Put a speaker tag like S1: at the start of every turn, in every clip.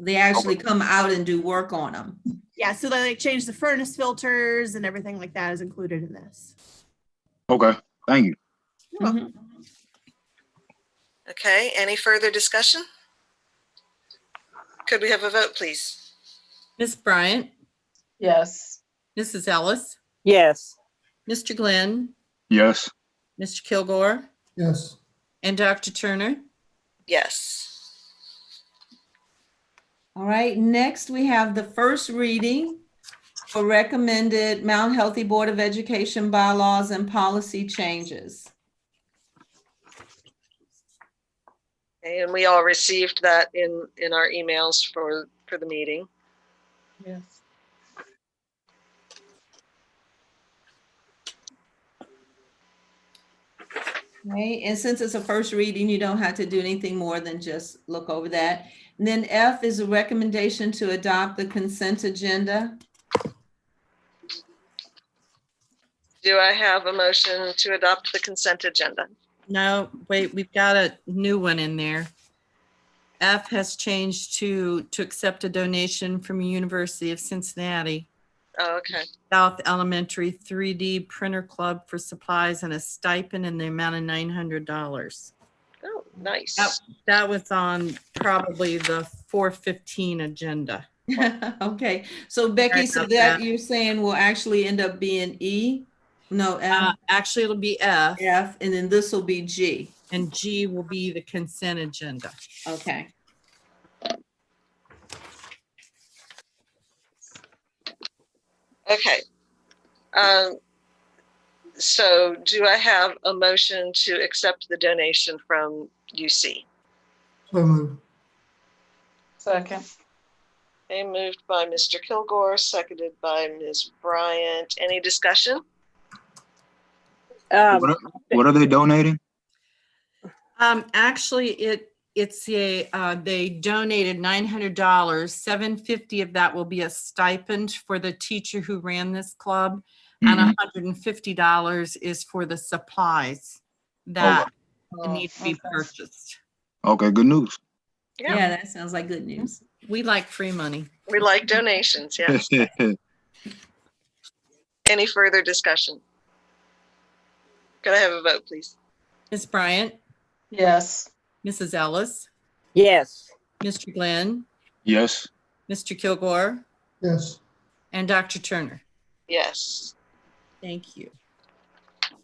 S1: They actually come out and do work on them.
S2: Yeah, so they like change the furnace filters and everything like that is included in this.
S3: Okay, thank you.
S4: Okay, any further discussion? Could we have a vote, please?
S5: Ms. Bryant,
S6: Yes.
S5: Mrs. Ellis,
S7: yes,
S5: Mr. Glenn,
S3: Yes,
S5: Mr. Kilgore,
S8: yes,
S5: and Dr. Turner.
S4: Yes.
S1: All right, next we have the first reading for recommended Mount Healthy Board of Education bylaws and policy changes.
S4: And we all received that in, in our emails for, for the meeting.
S6: Yes.
S1: Right, and since it's a first reading, you don't have to do anything more than just look over that. And then F is a recommendation to adopt the consent agenda.
S4: Do I have a motion to adopt the consent agenda?
S5: No, wait, we've got a new one in there. F has changed to, to accept a donation from University of Cincinnati
S4: Oh, Okay,
S5: South Elementary 3D Printer Club for supplies and a stipend in the amount of $900.
S4: oh, nice.
S5: Yep. That was on probably the 415 agenda.
S1: Okay, so Becky, so
S5: about
S1: that
S5: that.
S1: you're saying will actually end up being E? No,
S5: Uh,
S1: F,
S5: Actually, it'll be F
S1: F, and then this will be G.
S5: and G will be the consent agenda.
S1: Okay.
S4: Okay. Um, So do I have a motion to accept the donation from UC?
S8: so moved,
S6: Second.
S4: Okay, moved by Mr. Kilgore, seconded by Ms. Bryant. Any discussion?
S7: um,
S3: What are- what are they donating?
S5: Um, actually, it, it's a, uh, they donated nine hundred dollars, seven fifty of that will be a stipend for the teacher who ran this club. And
S3: Mhm.
S5: hundred and fifty dollars is for the supplies that need to be
S6: Oh, Okay.
S5: purchased.
S3: Mm-hmm. Okay, good news.
S1: Yeah, that sounds like good news.
S5: We like free money.
S4: We like donations, yeah. Any further discussion? Could I have a vote, please?
S5: Ms. Bryant,
S6: Yes.
S5: Mrs. Ellis,
S7: yes,
S5: Mr. Glenn,
S3: Yes,
S5: Mr. Kilgore,
S8: yes,
S5: and Dr. Turner.
S4: Yes.
S5: Thank you.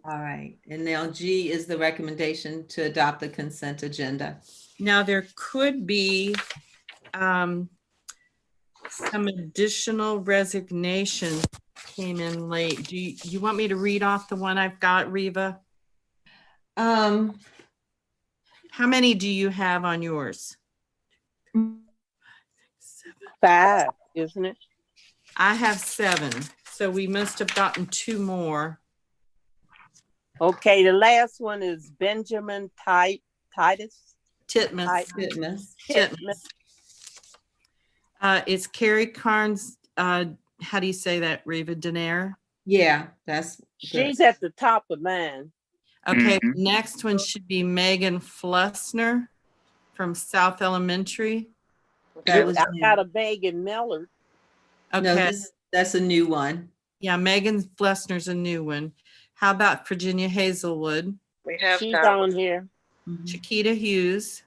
S1: All right, and now G is the recommendation to adopt the consent agenda.
S5: Now, there could be um, some additional resignations came in late. Do you, you want me to read off the one I've got, Reva?
S1: Um,
S5: How many do you have on yours?
S7: five, isn't it?
S5: I have seven, so we must have gotten two more.
S7: Okay, the last one is Benjamin Ti- Titus.
S5: Titmus.
S7: I-
S1: Titmus,
S5: Titmus. Uh, It's Carrie Carnes, uh, how do you say that, Reva? Denaire?
S1: yeah, that's,
S7: She's at the top of mine.
S5: Okay,
S3: Mhm.
S5: next one should be Megan Flessner from South Elementary.
S1: that
S7: I
S1: was,
S7: got a Megan Miller.
S1: no,
S5: Okay,
S1: this- that's a new one.
S5: yeah, Megan Flessner's a new one. How about Virginia Hazelwood,
S1: Mm-hmm.
S4: We have
S7: She's
S4: that.
S7: on here.
S1: Mhm.
S5: Chiquita Hughes,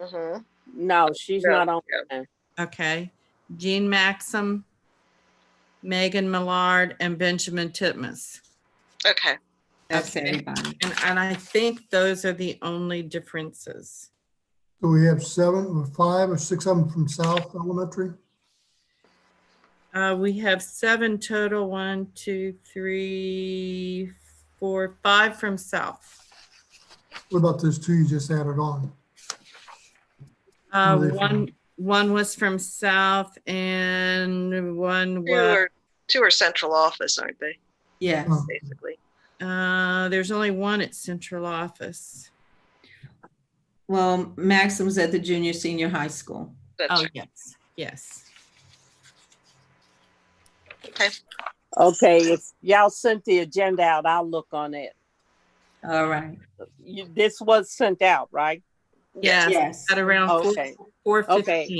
S4: Mhm.
S7: No, she's
S4: Yeah,
S7: not on.
S4: yeah.
S7: mine.
S5: okay, Jean Maxim, Megan Millard, and Benjamin Titmus.
S4: Okay,
S1: That's
S5: Okay.
S1: everybody.
S5: And, and I think those are the only differences.
S8: so we have seven or five or six of them from South Elementary,
S5: Uh, we have seven total, one, two, three, four, five from South.
S8: what about those two you just added on?
S5: Uh,
S8: Where they
S5: one,
S8: from?
S5: one was from South and one
S4: two
S5: was,
S4: are, two are central office, aren't they,
S1: Yes.
S8: Oh.
S4: basically?
S5: uh, there's only one at central office.
S1: Well, Maxim's at the junior, senior high school.
S4: That's
S5: Oh,
S4: right.
S5: yes, yes.
S4: Okay,
S7: Okay, if y'all sent the agenda out, I'll look on it.
S1: All right.
S7: You, this was sent out, right?
S5: Yes,
S1: Yes. Oh,
S5: at around four,
S7: Okay.
S5: four
S7: Okay.
S5: fifteen.